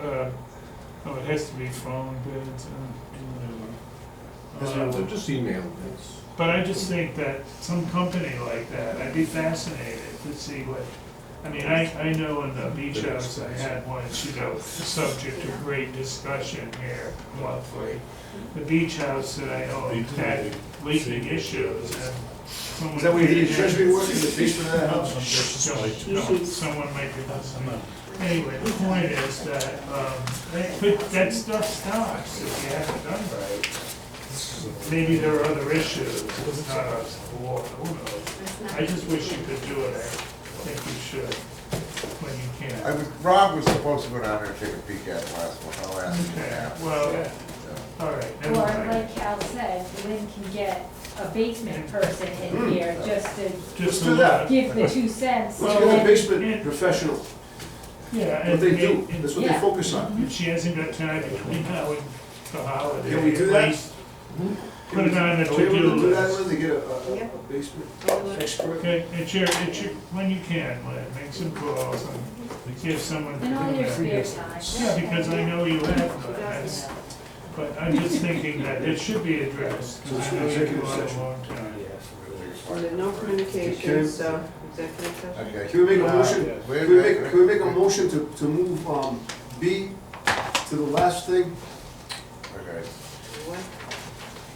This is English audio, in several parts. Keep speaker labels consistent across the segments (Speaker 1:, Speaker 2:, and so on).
Speaker 1: uh, no, it has to be phone bids and,
Speaker 2: That's
Speaker 1: and,
Speaker 2: what
Speaker 1: uh,
Speaker 2: I'm just emailing this.
Speaker 1: but I just think that some company like that, I'd be fascinated to see what, I mean, I, I know in the beach
Speaker 2: They're
Speaker 1: house, I had one, you know, subject to great discussion here, monthly. The beach house that I owned had leaking issues and someone.
Speaker 3: Is that where you did
Speaker 1: came
Speaker 3: your
Speaker 1: in-
Speaker 3: treasury work, in the basement of that house?
Speaker 1: No, no, someone might be listening. Anyway, the point is that, um, that could, that stuff stops if you haven't done right. Maybe there are other issues, it's not us, war, who knows? I just wish you could do it, I think you should, when you
Speaker 4: I
Speaker 1: can.
Speaker 4: was, Rob was supposed to go down there and take a peek at it last one, I'll ask him
Speaker 1: Okay,
Speaker 4: now.
Speaker 1: well,
Speaker 4: Yeah.
Speaker 1: all right,
Speaker 5: Or
Speaker 1: never mind.
Speaker 5: like Cal said, Lynn can get a basement person in here just to
Speaker 1: Just
Speaker 3: Let's do that.
Speaker 1: a-
Speaker 5: give the two cents.
Speaker 3: Let's
Speaker 5: and
Speaker 3: get a
Speaker 5: then-
Speaker 3: basement professional,
Speaker 1: Yeah.
Speaker 3: what they
Speaker 1: and-
Speaker 3: do,
Speaker 1: and-
Speaker 3: that's what they
Speaker 5: Yeah.
Speaker 3: focus on.
Speaker 1: If she hasn't got time between now and the holiday.
Speaker 3: Can we do
Speaker 1: at
Speaker 3: that?
Speaker 1: least Put it on the
Speaker 3: Are we able
Speaker 1: to-do
Speaker 3: to do that,
Speaker 1: list.
Speaker 3: Lynn, to get a, a- a
Speaker 6: Yep.
Speaker 3: basement
Speaker 6: I will.
Speaker 3: expert?
Speaker 1: Okay, it's your, it's your, when you can, Lynn, make some calls and give someone.
Speaker 5: In all your spare time.
Speaker 1: Yeah, because I know you have, none, that's- but I'm just thinking that it should be addressed,
Speaker 3: So
Speaker 1: because
Speaker 3: it's
Speaker 1: I know you
Speaker 3: executive
Speaker 1: go on a
Speaker 3: session.
Speaker 1: long time.
Speaker 6: And then no
Speaker 3: Okay.
Speaker 6: communication, so executive session.
Speaker 4: Okay.
Speaker 3: Can we make a motion,
Speaker 4: Uh, wait a
Speaker 3: can we make,
Speaker 4: minute.
Speaker 3: can we make a motion to, to move, um, B to the last thing,
Speaker 4: Okay.
Speaker 6: What?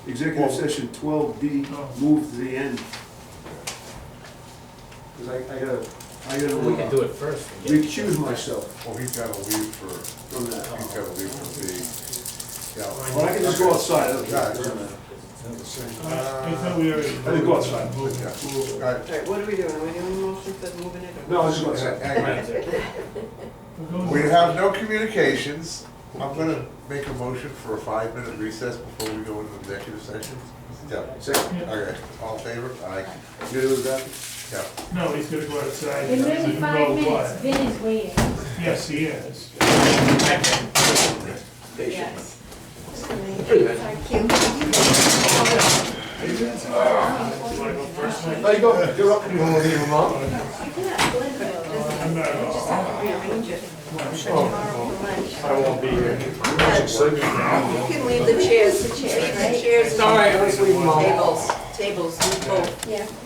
Speaker 3: executive
Speaker 4: Well-
Speaker 3: session twelve B,
Speaker 1: Oh.
Speaker 3: move to the end? Cause I, I gotta, I
Speaker 7: We can
Speaker 3: gotta
Speaker 7: do
Speaker 3: uh,
Speaker 7: it first. and get-
Speaker 3: recuse myself
Speaker 4: Well, he's gotta leave for,
Speaker 3: from that.
Speaker 4: he's gotta leave for the, yeah.
Speaker 3: Well, I can just go outside, it doesn't matter.
Speaker 1: Uh, I thought we already.
Speaker 3: I think go outside.
Speaker 1: voted.
Speaker 4: Yeah.
Speaker 1: Voted.
Speaker 4: All right,
Speaker 6: All right, what are we doing? Are we doing motions that moving it? or-
Speaker 3: No, I just go
Speaker 4: uh,
Speaker 3: outside.
Speaker 4: hang
Speaker 1: We're
Speaker 4: on.
Speaker 1: going-
Speaker 4: We have no communications. I'm gonna make a motion for a five-minute recess before we go into executive session. Yeah,
Speaker 3: Second,
Speaker 1: Yeah.
Speaker 4: okay, all in favor? Aye.
Speaker 3: you gonna do that?
Speaker 4: Yeah.
Speaker 1: No, he's gonna go outside.
Speaker 5: In
Speaker 1: He
Speaker 5: literally
Speaker 1: doesn't
Speaker 5: five
Speaker 1: know
Speaker 5: minutes,
Speaker 1: what.
Speaker 5: Vin is waiting.
Speaker 1: Yes, he is.
Speaker 5: Yes.
Speaker 1: Do I go first?
Speaker 3: There you go, you're up. You wanna leave him up?
Speaker 1: I'm not at all.
Speaker 6: Rearrange it.
Speaker 2: I won't be here.
Speaker 6: You can leave the chairs, leave the chairs,
Speaker 2: All right, let's leave them all.
Speaker 6: tables, tables, leave both.
Speaker 8: Yeah.